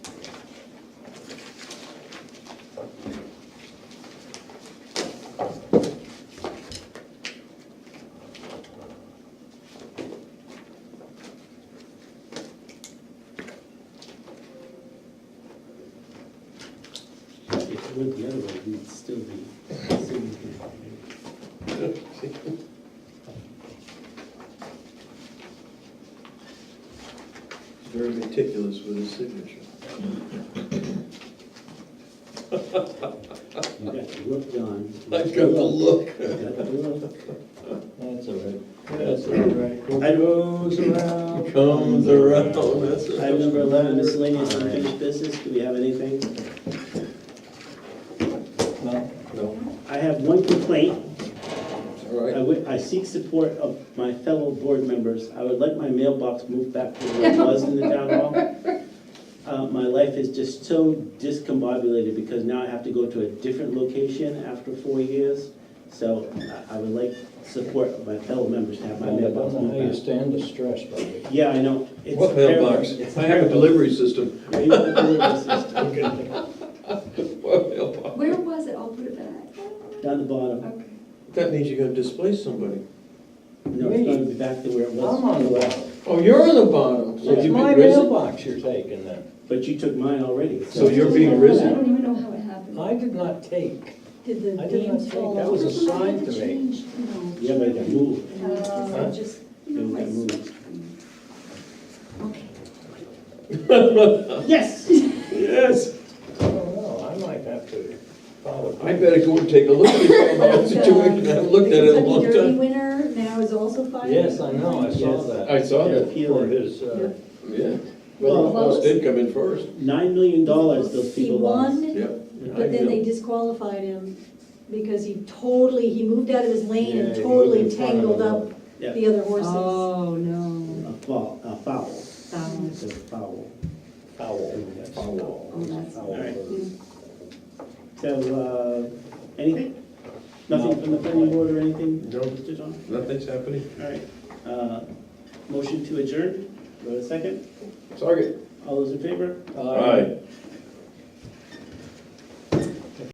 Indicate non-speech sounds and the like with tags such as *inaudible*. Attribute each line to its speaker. Speaker 1: went the other way, we'd still be.
Speaker 2: Very meticulous with his signature.
Speaker 1: You got the look, John.
Speaker 2: I've got the look.
Speaker 1: You got the look.
Speaker 3: That's all right.
Speaker 2: That's all right.
Speaker 1: I rose around.
Speaker 2: Comes around, that's. all right.
Speaker 1: Item number eleven, miscellaneous unfinished business, do we have anything?
Speaker 3: No,
Speaker 2: No,
Speaker 1: I have one complaint,
Speaker 2: all
Speaker 1: I
Speaker 2: right.
Speaker 1: would- I seek support of my fellow board members. I would like my mailbox moved back to where it was in the town hall. Uh, My life is just so discombobulated because now I have to go to a different location after four years. So I- I would like support of my fellow members to have my
Speaker 3: I don't
Speaker 1: mailbox
Speaker 3: know how you
Speaker 1: moved back.
Speaker 3: stand the stress, buddy.
Speaker 1: Yeah, I know. It's
Speaker 2: What mailbox?
Speaker 1: terrible. It's
Speaker 2: I have a
Speaker 1: terrible.
Speaker 2: delivery system.
Speaker 1: Yeah, you have a delivery system.
Speaker 2: What mailbox?
Speaker 4: Where was it? I'll put it back.
Speaker 1: Down the bottom.
Speaker 4: Okay.
Speaker 2: That means you're gonna displace somebody.
Speaker 1: No, it's going to be back to where it
Speaker 3: I'm
Speaker 1: was.
Speaker 3: on the bottom.
Speaker 2: Oh, you're on the bottom. So
Speaker 3: It's
Speaker 2: you've been
Speaker 3: my
Speaker 2: risen-
Speaker 3: mailbox you're taking then.
Speaker 1: But you took mine already.
Speaker 2: So you're being
Speaker 4: I
Speaker 2: risen?
Speaker 4: don't even know how it happened.
Speaker 3: I did not take.
Speaker 5: Did
Speaker 3: I
Speaker 5: the
Speaker 3: did not
Speaker 5: beams
Speaker 3: take-
Speaker 5: fall
Speaker 3: that
Speaker 5: off?
Speaker 3: was a sign to me.
Speaker 1: Yeah, but it got moved.
Speaker 4: Uh, I just, you know,
Speaker 1: It got
Speaker 4: my-
Speaker 1: moved.
Speaker 4: okay.
Speaker 1: Yes!
Speaker 2: Yes,
Speaker 3: I don't know, Oh, I might have to follow.
Speaker 2: I better go and take a look at *laughs* the situation. I haven't looked at it in a long
Speaker 5: The Kentucky Derby
Speaker 2: time.
Speaker 5: winner now is also fired.
Speaker 3: Yes, I know, I saw
Speaker 1: Yes.
Speaker 3: that.
Speaker 2: I saw that.
Speaker 3: For his, uh,
Speaker 2: Yeah.
Speaker 1: Well,
Speaker 2: Well, the Hawks did come in first.
Speaker 1: Nine million dollars those people lost.
Speaker 5: He won,
Speaker 2: Yeah.
Speaker 5: but then they disqualified him because he totally, he moved out of his lane and totally tangled up
Speaker 1: Yeah.
Speaker 5: the other horses.
Speaker 4: Oh, no.
Speaker 1: A foul, a foul,
Speaker 4: Um,
Speaker 1: it's a foul.
Speaker 3: foul.
Speaker 4: Oh, that's.
Speaker 1: All right. So, uh, anything?
Speaker 3: No.
Speaker 1: Nothing from the planning board or anything?
Speaker 2: No.
Speaker 1: Mr. John?
Speaker 2: Nothing's happening.
Speaker 1: All right. Uh, Motion to adjourn, go to second.
Speaker 2: Target.
Speaker 1: All those in favor?
Speaker 3: Uh,